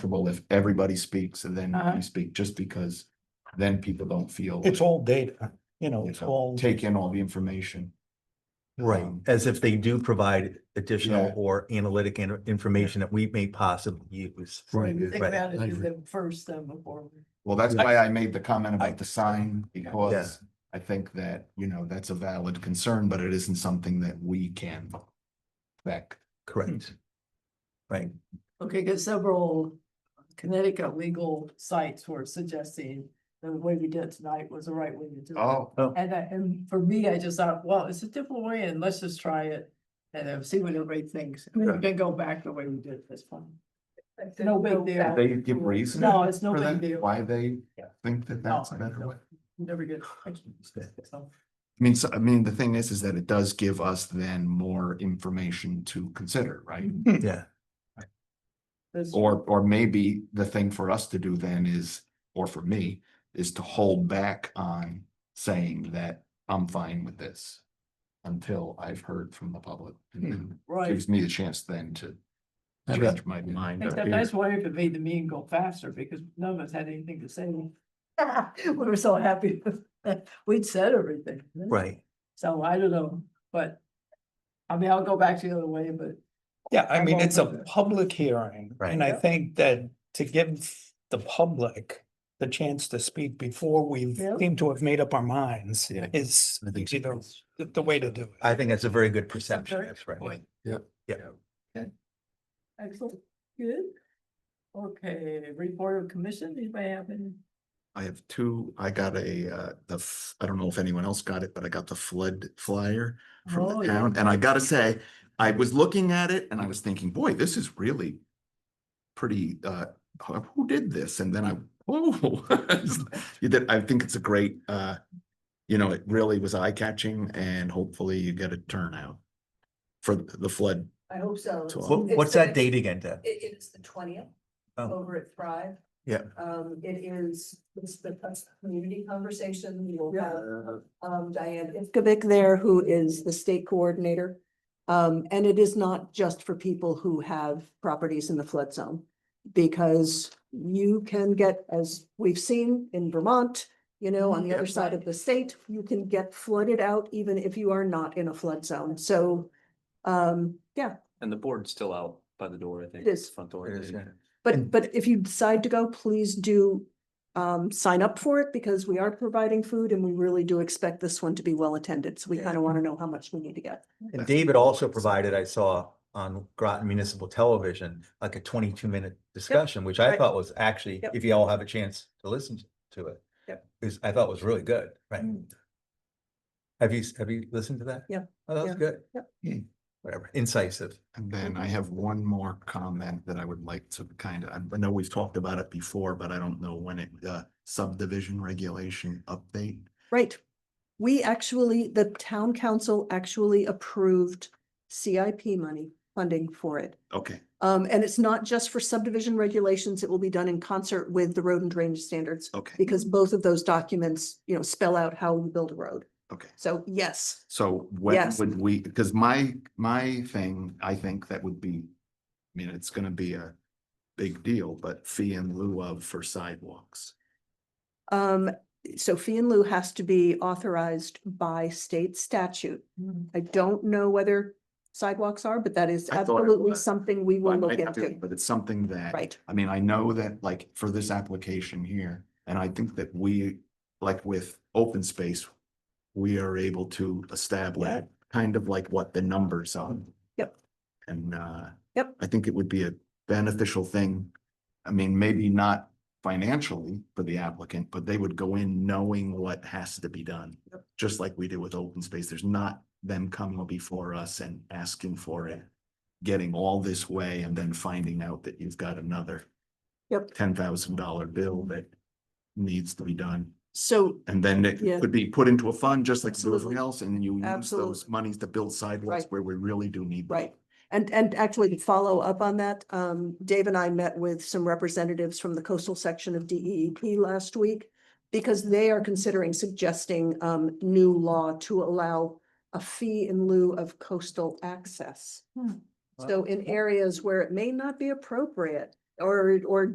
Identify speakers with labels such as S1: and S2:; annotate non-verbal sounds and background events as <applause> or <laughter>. S1: comfortable if everybody speaks and then
S2: Uh-huh.
S1: you speak, just because then people don't feel.
S3: It's all data, you know, it's
S1: Yeah.
S3: all.
S1: Take in all the information.
S4: Right,
S1: Um,
S4: as if they do provide additional
S1: Yeah.
S4: or analytic in- information that we may possibly use.
S1: Right.
S2: Think
S4: Right,
S2: about
S1: I
S2: it, do
S1: agree.
S2: them first then before. we-
S1: Well, that's
S4: Yeah.
S1: why I made the comment
S3: I-
S1: about the sign, because I think that, you know, that's a valid concern, but it isn't something that we can affect.
S4: Correct. Right,
S2: Okay, because several Connecticut legal sites were suggesting that the way we did it tonight was the right way to do it.
S1: Oh,
S2: And I, and for me, I just thought, well, it's a different way and let's just try it and uh, see what everybody thinks. And
S1: Yeah.
S2: then we can go back the way we did it this time. It's no big deal.
S1: they give reason
S2: No, it's no
S1: for
S2: big
S1: that,
S2: deal.
S1: why they
S2: Yeah.
S1: think that that's a
S2: No,
S1: better
S2: no.
S1: way.
S2: Never get. So,
S1: I mean, so, I mean, the thing is, is that it does give us then more information to consider, right?
S4: yeah,
S2: this-
S1: Or, or maybe the thing for us to do then is, or for me, is to hold back on saying that I'm fine with this. Until I've heard from the public and then
S2: Right.
S1: gives me the chance then to
S5: Have
S1: change my
S5: mind
S1: mind.
S2: Except I was wondering if it made the meeting go faster because none of us had anything to say.
S6: <laughs>
S2: We were so happy. We'd said everything.
S4: right.
S2: So I don't know, but I mean, I'll go back to the other way, but
S3: Yeah, I mean, it's
S2: Okay.
S3: a public hearing,
S4: Right.
S3: and I
S2: Yeah.
S3: think that to give the public the chance to speak before we
S2: Yeah.
S3: seem to have made up our minds
S5: Yeah.
S3: is
S5: I think
S3: you
S5: so.
S3: know, the, the way to do it.
S4: I think that's a very good perception,
S2: very
S4: that's right.
S5: Point.
S2: excellent, good. Okay, report of commission, anybody have any?
S1: I have two, I got a, uh, the, f- I don't know if anyone else got it, but I got the flood flyer from
S2: Oh,
S1: the
S2: yeah.
S1: town, and I gotta say, I was looking at it and I was thinking, boy, this is really pretty, uh, who who did this? And then I, <laughs> oh, you did- I think it's a great, uh, you know, it really was eye-catching and hopefully you get a turnout for the flood.
S6: I hope so.
S1: So-
S4: What,
S6: It's
S4: what's
S6: the-
S4: that date again, Deb?
S6: It, it's the twentieth
S4: Oh.
S6: over at Thrive.
S4: Yeah.
S6: Um, it is, it's the first community conversation. We will
S2: Yeah.
S6: have, um, Diane Ivkovic there, who is the state coordinator. Um, and it is not just for people who have properties in the flood zone. Because you can get, as we've seen in Vermont, you know, on the other side of the state, you can get flooded out even if you are not in a flood zone. So, um, yeah,
S5: And the board's still out by the door, I think.
S6: is.
S5: Front door.
S4: It is,
S5: yeah.
S4: And-
S6: But, but if you decide to go, please do um, sign up for it because we are providing food and we really do expect this one to be well attended. So we
S4: Yeah.
S6: kind of want to know how much we need to get.
S4: And David also provided, I saw on Groton Municipal Television, like a twenty-two minute discussion, which I
S6: right.
S4: thought was actually,
S6: Yep.
S4: if you all have a chance to listen to it.
S6: Yep.
S4: Is, I thought was really good, right? Have you, s- have you listened to that?
S6: Yep,
S4: Oh, that was
S6: yeah,
S4: good.
S6: yep.
S1: Hmm.
S4: Whatever, incisive.
S1: And then I have one more comment that I would like to kind of, I know we've talked about it before, but I don't know when it, uh, subdivision regulation update.
S6: Right. We actually, the town council actually approved CIP money funding for it.
S1: Okay,
S6: Um, and it's not just for subdivision regulations. It will be done in concert with the road and drainage standards
S1: okay,
S6: because both of those documents, you know, spell out how you build a road.
S1: okay.
S6: So yes,
S1: So when
S6: Yes.
S1: would we, because my, my thing, I think that would be, I mean, it's gonna be a big deal, but fee in lieu of for sidewalks.
S6: Um, so fee and lieu has to be authorized by state statute. I don't know whether sidewalks are, but that is
S1: I thought it
S6: absolutely
S1: was,
S6: something we
S1: Well, I
S6: will look
S1: might have to,
S6: into.
S1: But it's something that.
S6: Right,
S1: I mean, I know that like for this application here, and I think that we, like with open space, we are able to establish
S2: Yeah.
S1: kind of like what the numbers are.
S6: Yep.
S1: And uh.
S6: Yep.
S1: I think it would be a beneficial thing. I mean, maybe not financially for the applicant, but they would go in knowing what has to be done. Just like we did with open space. There's not them coming before us and asking for it getting all this way and then finding out that you've got another
S6: Yep.
S1: ten thousand dollar bill that needs to be done.
S6: so,
S1: And then it
S6: Yeah.
S1: could be put into a fund just like everything
S6: Absolutely.
S1: else, and then you use those
S6: Absolutely.
S1: monies to build sidewalks
S6: Right.
S1: where we really do need. them.
S6: right. And, and actually to follow up on that, um, Dave and I met with some representatives from the coastal section of DEEP last week because they are considering suggesting, um, new law to allow a fee in lieu of coastal access.
S2: Hmm.
S6: So in areas where it may not be appropriate or, or